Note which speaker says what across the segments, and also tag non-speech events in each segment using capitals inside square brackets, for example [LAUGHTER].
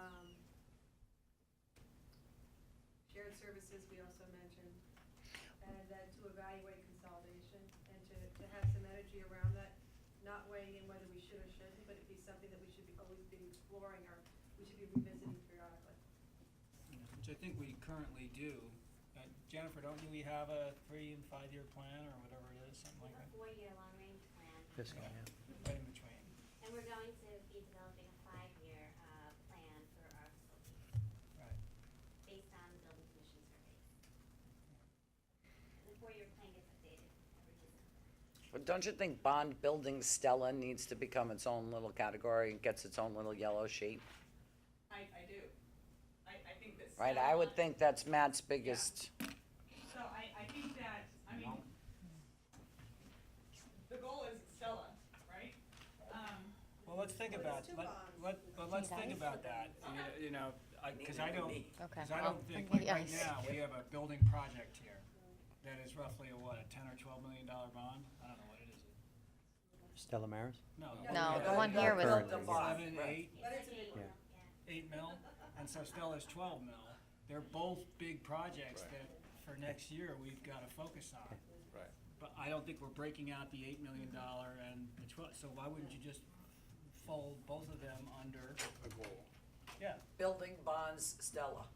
Speaker 1: um, services, we also mentioned, and then to evaluate consolidation and to, to have some energy around that, not weighing in whether we should or shouldn't, but it'd be something that we should be, always be exploring or we should be revisiting periodically.
Speaker 2: Yeah, Which I think we currently do. Uh, Jennifer, don't you, we have a three and five-year plan or whatever it is, something like
Speaker 3: a
Speaker 2: that?
Speaker 3: four-year long-range plan,
Speaker 4: This one, yeah.
Speaker 2: Right in between.
Speaker 3: and we're going to be developing a five-year, uh, plan for our facilities,
Speaker 2: Right.
Speaker 3: based on the building commission survey. And the four-year plan gets updated every December.
Speaker 5: But don't you think bond building Stella needs to become its own little category and gets its own little yellow sheet?
Speaker 6: I, I do. I, I think that.
Speaker 5: Right, I would think that's Matt's biggest,
Speaker 6: So I, I think that, I mean, the goal is Stella, right? Um,
Speaker 2: Well, let's think about,
Speaker 1: It's two
Speaker 2: let,
Speaker 1: bonds.
Speaker 2: let, but let's think about that, you- you know, I, cause I don't, cause I don't
Speaker 7: Oh,
Speaker 2: think, like, right
Speaker 7: yes.
Speaker 2: now, we have a building project here that is roughly a, what, a ten or twelve million dollar bond? I don't know what it is.
Speaker 4: Stella Maris?
Speaker 2: No.
Speaker 7: No, the one
Speaker 5: no,
Speaker 7: here was.
Speaker 4: current.
Speaker 2: Seven, eight,
Speaker 5: Right.
Speaker 1: But it's a
Speaker 3: like
Speaker 1: big
Speaker 4: one.
Speaker 3: yeah.
Speaker 2: eight mil,
Speaker 1: [LAUGHS]
Speaker 2: and so Stella's twelve mil. They're both big projects that for next year we've gotta focus on.
Speaker 8: Right.
Speaker 2: But I don't think we're breaking out the eight million dollar and the twelve, so why wouldn't you just fold both of them under,
Speaker 8: A goal.
Speaker 2: yeah,
Speaker 5: building bonds Stella.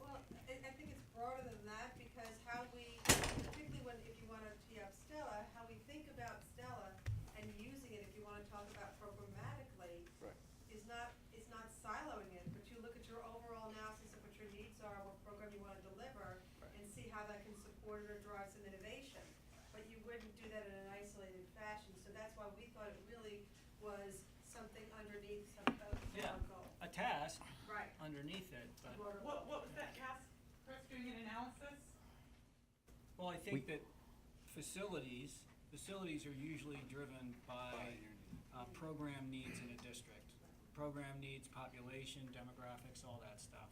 Speaker 1: Well, I, I think it's broader than that, because how we, particularly when, if you wanna tee up Stella, how we think about Stella and using it, if you wanna talk about programmatically,
Speaker 8: Right.
Speaker 1: is not, is not siloing it, but you look at your overall analysis of what your needs are, what program you wanna deliver, and see how that can support or drive some innovation. But you wouldn't do that in an isolated fashion, so that's why we thought it really was something underneath some of the
Speaker 2: Yeah.
Speaker 1: goal.
Speaker 2: a task
Speaker 1: Right.
Speaker 2: underneath it, but,
Speaker 1: Broader goal.
Speaker 6: What, what was that task, Chris, doing an analysis?
Speaker 2: well, I think
Speaker 4: We-
Speaker 2: that facilities, facilities are usually driven by, uh, program needs in a district. Program needs, population, demographics, all that stuff.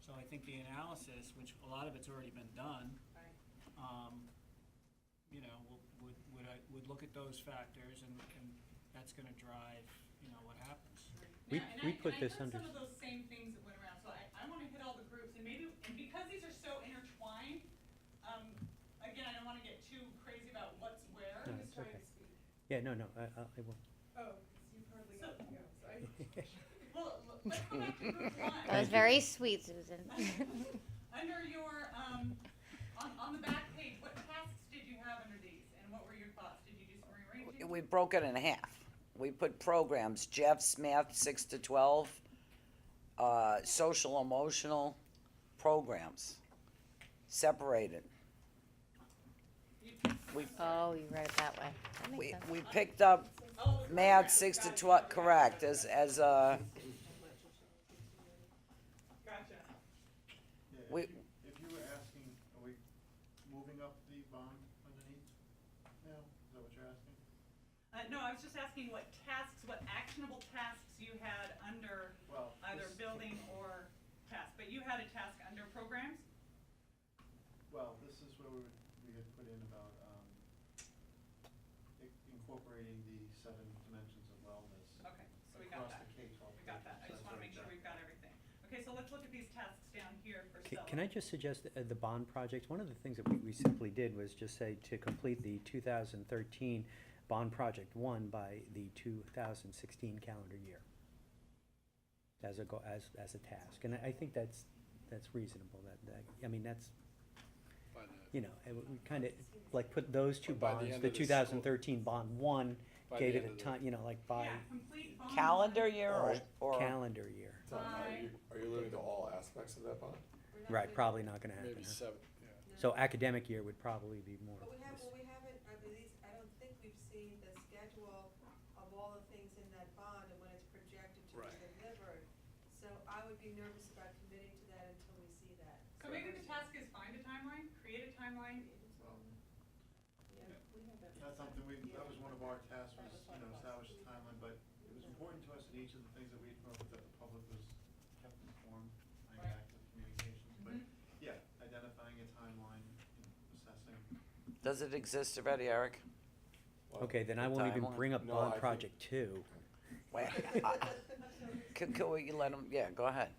Speaker 2: So I think the analysis, which a lot of it's already been done,
Speaker 1: Right.
Speaker 2: um, you know, w- would, would I, would look at those factors and, and that's gonna drive, you know, what happens.
Speaker 4: We-
Speaker 6: Yeah, and
Speaker 4: we
Speaker 6: I-
Speaker 4: put this under-
Speaker 6: And I heard some of those same things that went around, so I, I wanna hit all the groups, and maybe, and because these are so intertwined, um, again, I don't wanna get too crazy about what's where.
Speaker 4: No, it's okay. Yeah, no, no, I, I I will.
Speaker 6: Oh, you hardly got to go, so I. Well, l- let's go back to group one.
Speaker 7: That was very sweet, Susan.
Speaker 6: [LAUGHS]
Speaker 7: [LAUGHS]
Speaker 6: Under your, um, on, on the back page, what tasks did you have under these, and what were your thoughts? Did you do some rearranging?
Speaker 5: We broke it in half. We put programs, Jeff's math, six to twelve, uh, social emotional programs, separated.
Speaker 6: You-
Speaker 5: We, uh,
Speaker 7: Oh, you read it that way. That makes
Speaker 5: we,
Speaker 7: sense.
Speaker 5: we picked up
Speaker 6: Oh, the
Speaker 5: math,
Speaker 6: programs.
Speaker 5: six to
Speaker 6: Gotcha,
Speaker 5: twelve,
Speaker 6: gotcha,
Speaker 5: correct,
Speaker 6: gotcha,
Speaker 5: as, as a,
Speaker 6: Gotcha.
Speaker 9: Yeah,
Speaker 5: We-
Speaker 9: if you, if you were asking, are we moving up the bond underneath now? Is that what you're asking?
Speaker 6: Uh, no, I was just asking what tasks, what actionable tasks you had under
Speaker 9: Well,
Speaker 6: either
Speaker 9: this-
Speaker 6: building or task, but you had a task under programs?
Speaker 9: Well, this is where we, were- we had put in about, um, i- incorporating the seven dimensions of wellness.
Speaker 6: Okay, so we got that.
Speaker 9: Across the K-12.
Speaker 6: We got that. I just wanna make sure we've got everything. Okay, so let's look at these tasks down here for
Speaker 4: Ca-
Speaker 6: Stella.
Speaker 4: Can I just suggest uh, the bond project, one of the things that we, we simply did was just say to complete the two thousand thirteen bond project one by the two thousand sixteen calendar year. As a go, as, as a task, and I, I think that's, that's reasonable, that, that, I mean, that's,
Speaker 8: By the-
Speaker 4: you know, and we kinda, like, put those two
Speaker 8: By the
Speaker 4: bonds,
Speaker 8: end
Speaker 4: the
Speaker 8: of the school-
Speaker 4: two thousand thirteen bond one,
Speaker 8: By
Speaker 4: gave
Speaker 8: the
Speaker 4: it
Speaker 8: end
Speaker 4: a
Speaker 8: of the-
Speaker 4: time, you know, like by
Speaker 6: Yeah, complete bond.
Speaker 5: calendar year or, or
Speaker 4: calendar year.
Speaker 8: So Are
Speaker 6: Bye.
Speaker 8: you, are you limited to all aspects of that bond?
Speaker 1: We're not
Speaker 4: Right,
Speaker 1: doing-
Speaker 4: probably not gonna happen,
Speaker 8: Maybe
Speaker 4: huh?
Speaker 8: seven, yeah.
Speaker 4: So academic year would probably be more.
Speaker 1: But we have,
Speaker 4: this-
Speaker 1: well, we haven't, I least I don't think we've seen the schedule of all the things in that bond and when it's projected to be
Speaker 8: Right.
Speaker 1: delivered. So I would be nervous about committing to that until we see that.
Speaker 6: So maybe the task is find a timeline, create a timeline.
Speaker 9: That's something we, that was one of our tasks, was, you know, establish a timeline, but it was important to us in each of the things that we had proposed that the public was kept informed, like
Speaker 6: Right.
Speaker 9: active communications, but,
Speaker 6: Mhm.
Speaker 9: yeah, identifying a timeline, you know, assessing.
Speaker 5: does it exist already, Eric?
Speaker 8: Well,
Speaker 4: Okay, then I
Speaker 5: The
Speaker 4: won't even
Speaker 5: timeline?
Speaker 4: bring up
Speaker 8: No, uh, I
Speaker 4: bond
Speaker 8: [LAUGHS] think-
Speaker 4: project two.
Speaker 1: [LAUGHS]
Speaker 5: Wait, I- Could, could we let him, yeah, go ahead.